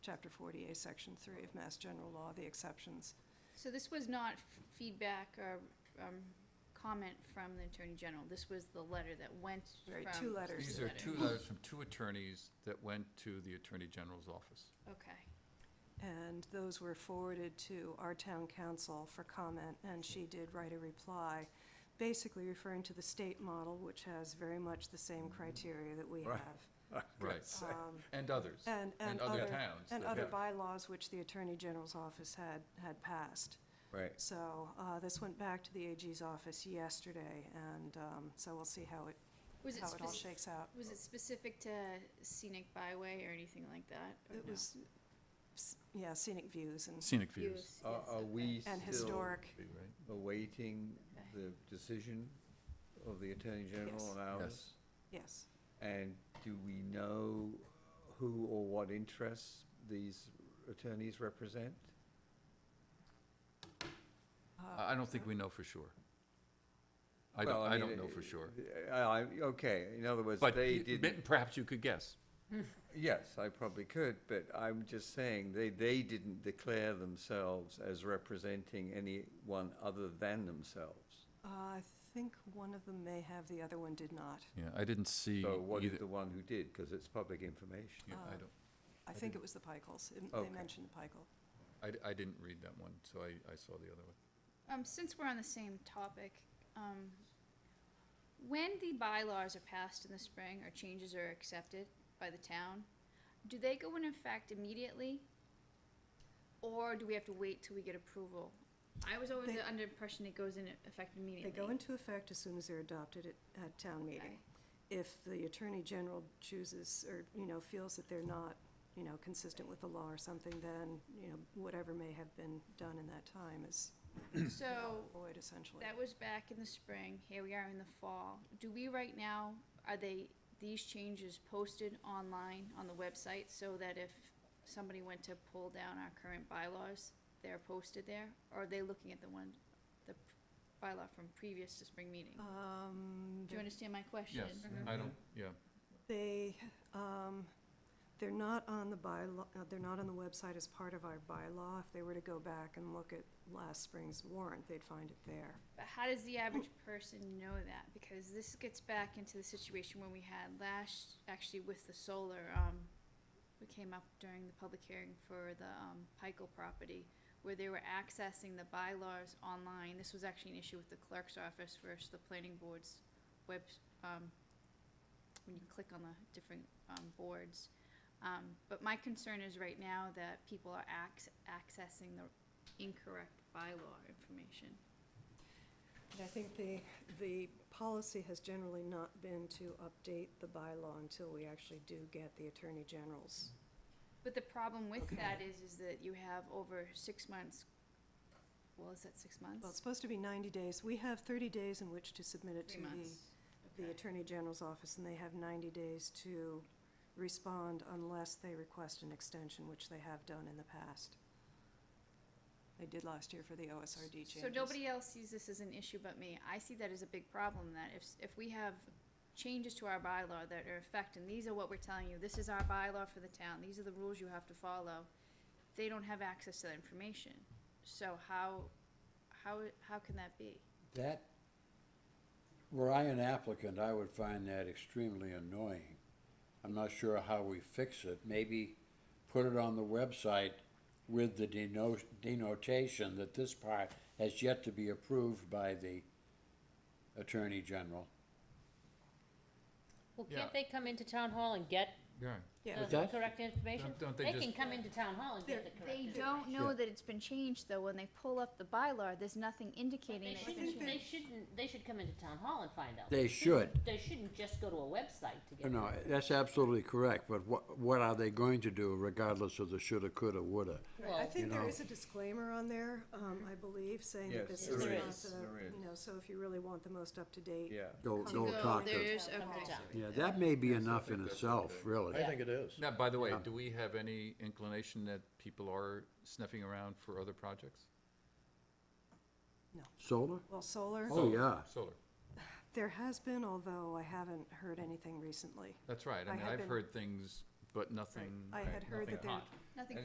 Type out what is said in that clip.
Chapter 40A, Section 3 of Mass General Law, the exceptions. So this was not f- feedback or um, comment from the Attorney General. This was the letter that went from. Right, two letters. Just There's These the are letter. two letters from two attorneys that went to the Attorney General's office. Okay. And those were forwarded to our town council for comment, and she did write a reply, basically referring to the state model, which has very much the same criteria that we Right. have. Right. Uh, Um, And others. And, and other other, towns. and that other have- bylaws which the Attorney General's office had, had passed. Right. So uh, this went back to the AG's office yesterday, and um, so we'll see how it, Was it how it all spec- shakes out. Was it specific to scenic byway or anything like that? or It no? was, s- yeah, scenic views and, Scenic views. Views, Are, yes, are okay. we and still historic. Right. awaiting Okay. the decision of the Attorney General Yes. on ours? Yes. Yes. And do we know who or what interests these attorneys represent? Uh, I I don't think we know for sure. I don't, Well, I mean, don't know for uh, sure. uh, I, okay, in other words, But they you- didn't, perhaps you could guess. yes, I probably could, but I'm just saying, they, they didn't declare themselves as representing anyone other than themselves. uh, I think one of them may have, the other one did not. Yeah, I didn't see So what either. is the one who did, because it's public information. Yeah, I Uh, don't, I think it was the Pikel's. It- They Okay. mentioned the Pikel. I d- I didn't read that one, so I, I saw the other one. Um, since we're on the same topic, um, when the bylaws are passed in the spring or changes are accepted by the town, do they go into effect immediately? Or do we have to wait till we get approval? I was always They- under impression it goes into effect They immediately. go into effect as soon as they're adopted at, at town meeting. Okay. If the Attorney General chooses, or, you know, feels that they're not, you know, consistent with the law or something, then, you know, whatever may have been done in that time is So, void essentially. That was back in the spring, here we are in the fall. Do we right now, are they, these changes posted online on the website so that if somebody went to pull down our current bylaws, they're posted there? Or are they looking at the one, the p- bylaw from previous to spring meeting? Uh, Um, Do you understand my question? Yes, I don't, yeah. They, um, they're not on the bylaw, uh, they're not on the website as part of our bylaw. If they were to go back and look at last spring's warrant, they'd find it there. But how does the average person know that? Because this gets back into the situation when we had last, actually with the solar, um, we came up during the public hearing for the, um, Pikel property, where they were accessing the bylaws online. This was actually an issue with the clerk's office versus the planning board's web, um, when you click on the different, um, boards. Um, but my concern is right now that people are acc- accessing the incorrect bylaw information. And I think the, the policy has generally not been to update the bylaw until we actually do get the Attorney General's. But the problem with that is, is that you have over six months, well, is that six months? Well, it's supposed to be ninety days. We have thirty days in which to submit it to Three months. the, the Okay. Attorney General's office, and they have ninety days to respond unless they request an extension, which they have done in the past. They did last year for the OSRD changes. So nobody else sees this as an issue but me. I see that as a big problem, that if, s- if we have changes to our bylaw that are affecting, these are what we're telling you, this is our bylaw for the town, these are the rules you have to follow, they don't have access to that information. So how, how, how can that be? That, were I an applicant, I would find that extremely annoying. I'm not sure how we fix it. Maybe put it on the website with the deno- denotation that this part has yet to be approved by the Attorney General. Well, Yeah. can't they come into town hall and get Yeah, Yeah, the that- correct information? Don't- don't they They just- can come into town hall and get the correct They information. don't know Yeah. that it's been changed, though, when they pull up the bylaw, there's nothing indicating They that it's been shouldn't, changed. they shouldn't, they should come into town hall and find out. They should. They shouldn't just go to a website to get. No, that's absolutely correct, but what, what are they going to do regardless of the shoulda, coulda, woulda? I Well, think there know. is a disclaimer on there, um, I believe, saying that this Yes, there is not is. There the, is. you know, so if you really want the most up-to-date. Yeah. Go, To go go, talk there to. is- okay. Yeah, that may be enough in that's itself, okay. really. I think it is. Now, by the way, do we have any inclination that people are sniffing around for other projects? Solar? Well, solar, Oh, yeah. Solar, there has been, although I haven't heard anything recently. that's right. I I mean, had I've been- heard things, but nothing, I had heard nothing that there, hot. Nothing